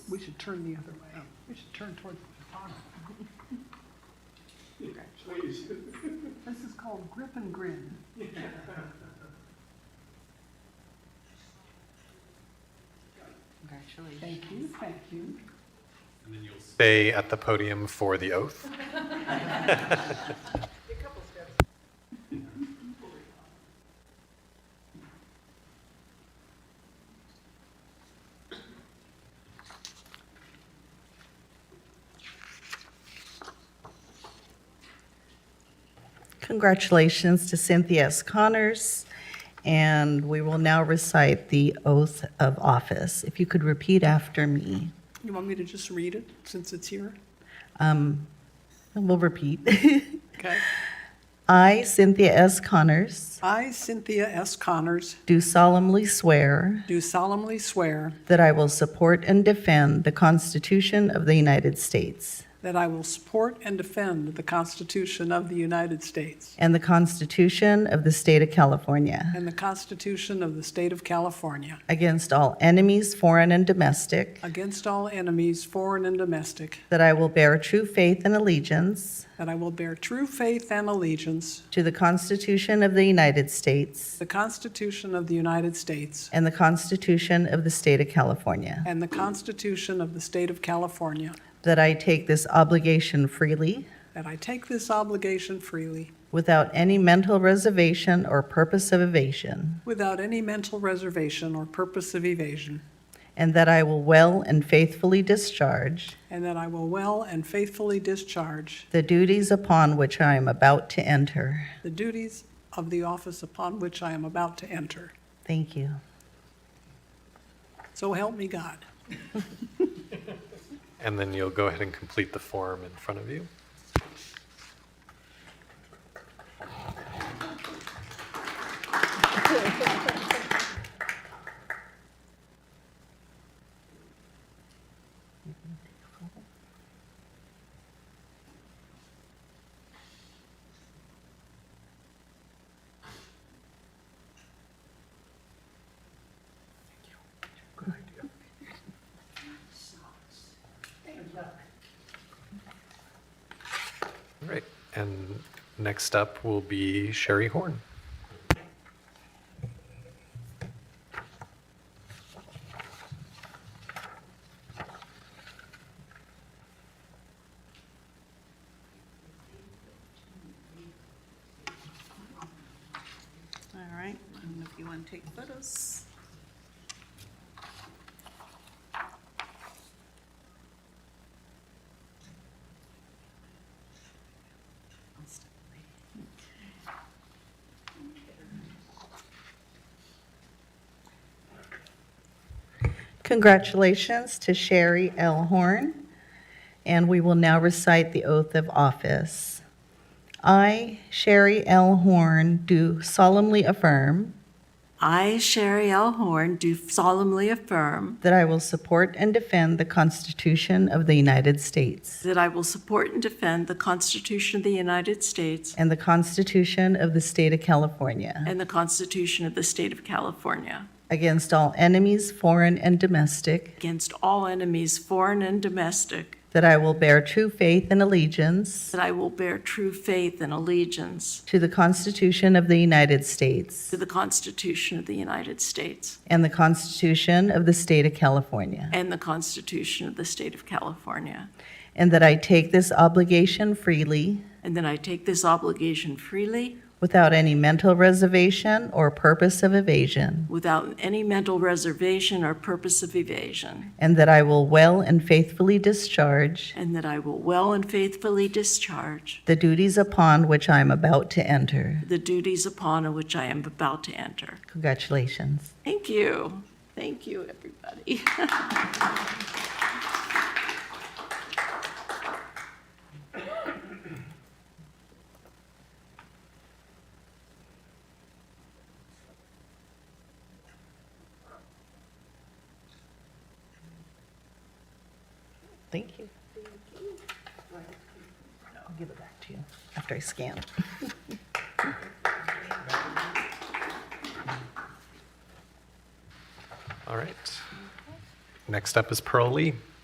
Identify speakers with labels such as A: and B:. A: should turn the other way. We should turn towards the pond.
B: Please.
A: This is called grip and grin.
C: Congratulations.
A: Thank you, thank you.
D: And then you'll stay at the podium for the oath.
E: Congratulations to Cynthia S. Connors, and we will now recite the oath of office. If you could repeat after me.
A: You want me to just read it since it's here?
E: Um, We'll repeat.
A: Okay.
E: I, Cynthia S. Connors,
A: I, Cynthia S. Connors,
E: do solemnly swear
A: do solemnly swear
E: that I will support and defend the Constitution of the United States
A: that I will support and defend the Constitution of the United States
E: and the Constitution of the State of California
A: and the Constitution of the State of California
E: against all enemies, foreign and domestic,
A: against all enemies, foreign and domestic,
E: that I will bear true faith and allegiance
A: that I will bear true faith and allegiance
E: To the Constitution of the United States
A: to the Constitution of the United States
E: and the Constitution of the State of California.
A: and the Constitution of the State of California,
E: That I take this obligation freely,
A: that I take this obligation freely
E: without any mental reservation or purpose of evasion,
A: without any mental reservation or purpose of evasion,
E: and that I will well and faithfully discharge
A: and that I will well and faithfully discharge
E: the duties upon which I am about to enter.
A: the duties of the office upon which I am about to enter.
E: Thank you.
A: So help me God.
D: And then you'll go ahead and complete the form in front of you. All right. And next up will be Sherry Horn.
C: All right, and if you want to take photos. I'll step away.
E: Congratulations to Sherry L. Horn, and we will now recite the oath of office. I, Sherry L. Horn, do solemnly affirm
C: I, Sherry L. Horn, do solemnly affirm
E: that I will support and defend the Constitution of the United States
C: that I will support and defend the Constitution of the United States
E: and the Constitution of the State of California
C: and the Constitution of the State of California
E: against all enemies, foreign and domestic,
C: against all enemies, foreign and domestic,
E: that I will bear true faith and allegiance
C: that I will bear true faith and allegiance
E: to the Constitution of the United States
C: to the Constitution of the United States
E: and the Constitution of the State of California.
C: and the Constitution of the State of California,
E: And that I take this obligation freely,
C: and that I take this obligation freely
E: without any mental reservation or purpose of evasion,
C: without any mental reservation or purpose of evasion,
E: and that I will well and faithfully discharge
C: and that I will well and faithfully discharge
E: the duties upon which I am about to enter.
C: the duties upon which I am about to enter.
E: Congratulations.
C: Thank you. Thank you, everybody.
E: Thank you. I'll give it back to you after I scan.
D: All right. Next up is Pearl Lee.